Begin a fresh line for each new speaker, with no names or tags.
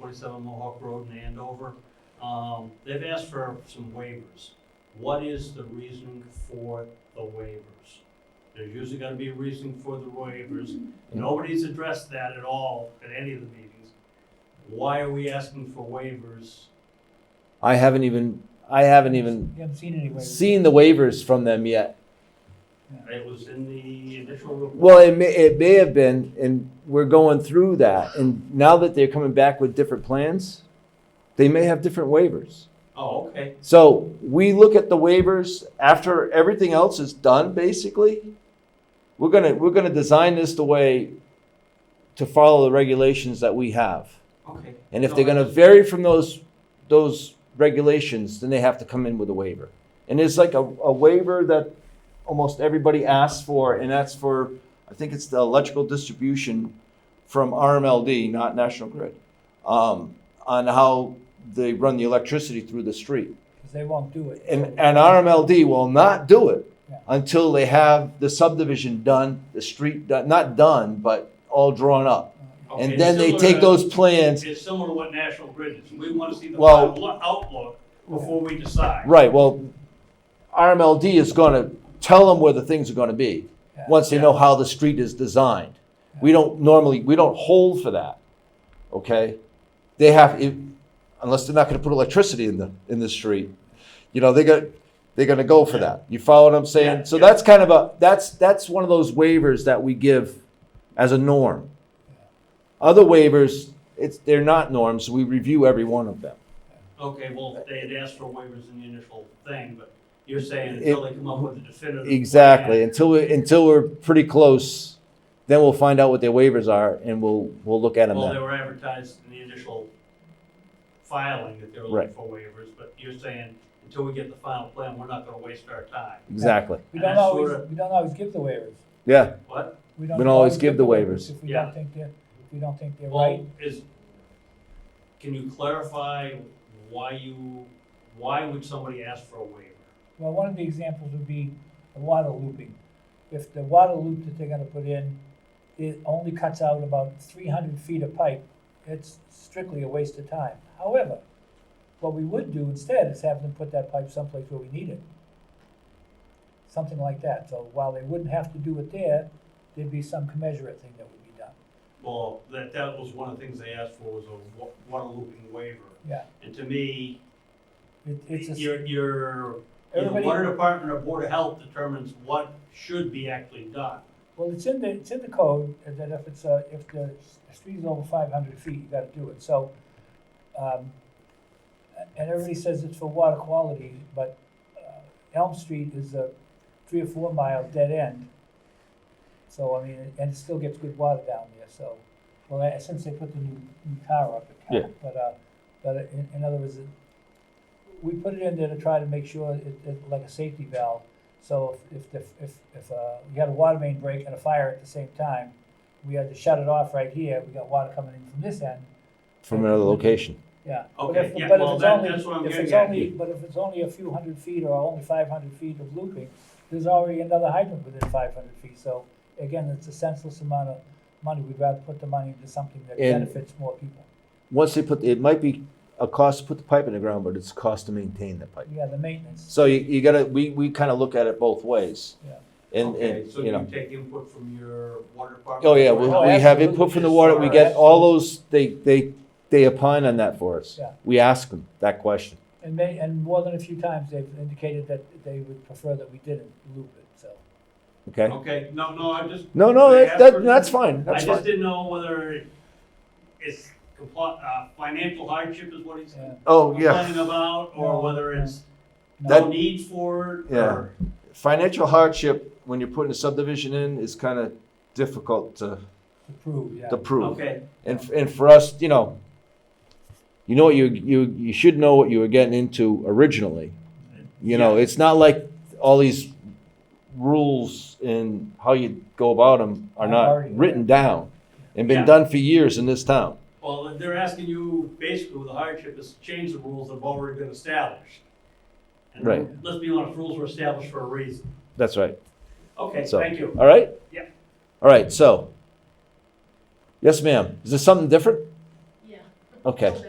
forty-seven Mohawk Road in Andover. Um, they've asked for some waivers. What is the reason for the waivers? There's usually gonna be a reason for the waivers. Nobody's addressed that at all at any of the meetings. Why are we asking for waivers?
I haven't even I haven't even
You haven't seen any waivers.
seen the waivers from them yet.
It was in the initial report.
Well, it may, it may have been, and we're going through that. And now that they're coming back with different plans, they may have different waivers.
Oh, okay.
So we look at the waivers after everything else is done, basically. We're gonna, we're gonna design this the way to follow the regulations that we have.
Okay.
And if
No,
they're
I
gonna
just-
vary from those, those regulations, then they have to come in with a waiver. And it's like a, a waiver that almost everybody asks for, and that's for, I think it's the electrical distribution from RMLD, not National Grid, um, on how they run the electricity through the street
Because they won't do it. Uh,
and, and RMLD will not do it
Yeah.
until they have the subdivision done, the street done, not done, but all drawn up.
Okay,
And then they
similar
take
to-
those plans,
It's similar to what National Grid is. We want to see the
Well-
final outlook before we decide.
right, well, RMLD is gonna tell them where the things are gonna be,
Yeah.
once they know how the street is designed. We don't normally, we don't hold for that, okay? They have, if- unless they're not gonna put electricity in the, in the street, you know, they got, they're gonna go for that. You follow what I'm
Yeah,
saying? So
yeah.
that's kind of a, that's, that's one of those waivers that we give as a norm. Other waivers, it's, they're not norms, we review every one of them.
Okay, well, they had asked for waivers in the initial thing, but you're saying until they come up with a definitive.
Exactly,
plan.
until we, until we're pretty close, then we'll find out what their waivers are and we'll, we'll look at them
Well, they
then.
were advertised in the initial filing that they were looking
Right.
for waivers, but you're saying until we get the final plan, we're not gonna waste our time.
Exactly,
We
And
don't
that's
always,
sorta-
we don't always give the waivers.
yeah,
What?
We
We don't always give the waivers.
If we
Yeah.
don't think they're, if we don't think they're right.
Well, is, can you clarify why you, why would somebody ask for a waiver?
Well, one of the examples would be the water looping. If the water loop that they're gonna put in, it only cuts out about three hundred feet of pipe, it's strictly a waste of time. However, what we would do instead is have them put that pipe someplace where we need it. Something like that, so while they wouldn't have to do it there, there'd be some commensurate thing that would be done,
Well, that, that was one of the things they asked for was a wa- water looping waiver.
yeah.
And to me,
It, it's a,
your, your, the
everybody,
water department or board of health determines what should be actually done.
well, it's in the, it's in the code that if it's, uh, if the s- street is over five hundred feet, you gotta do it, so. um, And everybody says it's for water quality, but uh, Elm Street is a three or four mile dead end. So, I mean, and it still gets good water down there, so, well, eh, since they put the new, new car up, it
Yeah.
counts, but, uh, but in, in other words, it- we put it in there to try to make sure it, it, like a safety valve. So if, if, the- if, if, uh, we had a water main break and a fire at the same time, we had to shut it off right here, we got water coming in from this end,
from another location.
yeah.
Okay,
But if-
yeah,
but if
well,
it's
that-
only-
that's what I'm
if
getting
it's
at.
only- But if it's only a few hundred feet or only five hundred feet of looping, there's already another hydrant within five hundred feet, so again, it's a senseless amount of money, we'd rather put the money into something that
And-
benefits more people.
Once they put, it might be a cost to put the pipe in the ground, but it's a cost to maintain the pipe.
Yeah, the maintenance,
So you, you gotta, we, we kind of look at it both ways.
yeah.
And,
Okay,
and,
so
you know,
you take input from your water department?
oh yeah, we,
Oh,
we have
absolutely.
input from the water, we get all those, they, they, they opine on that for us.
Yeah.
We ask them that question.
And they, and more than a few times, they've indicated that they would prefer that we didn't loop it, so.
Okay?
Okay, no, no, I just,
No, no,
Oh. They
that,
ask for-
that, that's fine.
I
That's
just
fine.
didn't know whether it's compli uh, financial hardship is what he's
Yeah.
Oh, yeah.
complaining about,
No,
or whether
no.
it's no
That-
need for it,
Yeah.
or,
Financial hardship, when you're putting a subdivision in, is kind of difficult to,
To prove, yeah.
to prove.
okay,
And, f- and for us, you know, you know what you, you, you should know what you were getting into originally. You know,
Yeah.
it's not like all these rules and how you go about them are
Are already-
not written down and been
Yeah.
done for years in this town.
well, they're asking you, basically, the hardship is to change the rules that have already been established. And
Right.
Let's be honest, rules were established for a reason.
That's right.
Okay,
So-
thank you.
All right?
Yeah.
All right, so. Yes, ma'am. Is this something different?
Yeah.
Okay.